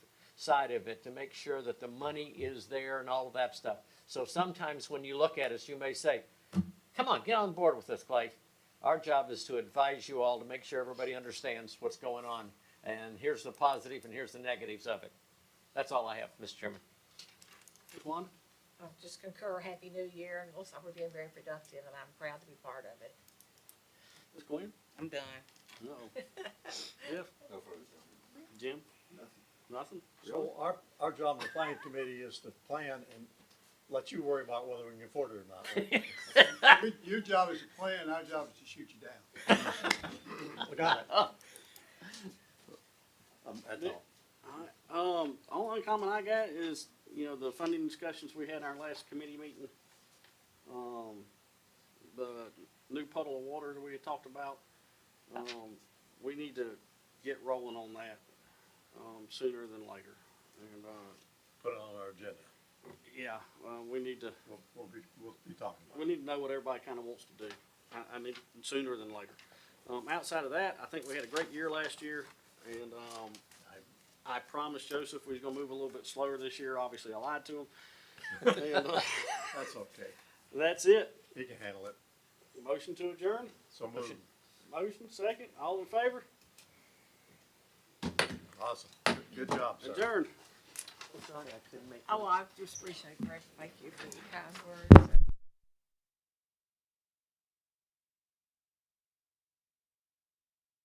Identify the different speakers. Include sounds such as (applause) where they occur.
Speaker 1: side of it to make sure that the money is there and all of that stuff. So sometimes when you look at us, you may say, come on, get on board with this, Clay. Our job is to advise you all to make sure everybody understands what's going on. And here's the positive and here's the negatives of it. That's all I have, Mr. Chairman.
Speaker 2: Wanda?
Speaker 3: I'll just concur, Happy New Year, and looks like we're being very productive, and I'm proud to be part of it.
Speaker 2: Ms. Gwen?
Speaker 4: I'm done.
Speaker 2: No. Jeff?
Speaker 5: No further comment.
Speaker 2: Jim? Nothing. Nothing?
Speaker 6: So our, our job on the planning committee is to plan and let you worry about whether we can afford it or not.
Speaker 7: (laughs)
Speaker 6: right?
Speaker 7: Your- Your job is to plan, our job is to shoot you down.
Speaker 6: We got it.
Speaker 2: Um,
Speaker 6: That's
Speaker 2: th-
Speaker 6: all.
Speaker 2: All right, um, only comment I got is, you know, the funding discussions we had in our last committee meeting. Um, the new puddle of water that we had talked about, um, we need to get rolling on that, um, sooner than later. And, uh,
Speaker 6: Put it on our agenda.
Speaker 2: yeah, uh, we need to,
Speaker 6: We'll, we'll be, we'll be talking
Speaker 2: we
Speaker 6: about it.
Speaker 2: need to know what everybody kinda wants to do. I, I mean, sooner than later. Um, outside of that, I think we had a great year last year and, um, I promised Joseph we was gonna move a little bit slower this year. Obviously, I lied to him. And, uh,
Speaker 6: That's okay.
Speaker 2: That's it.
Speaker 6: He can handle it.
Speaker 2: Motion to adjourn.
Speaker 6: So moved.
Speaker 2: Motion, second. All in favor?
Speaker 6: Awesome. Good job, sir.
Speaker 2: Adjourn.
Speaker 3: Oh, I just appreciate, Greg, thank you for your kind words.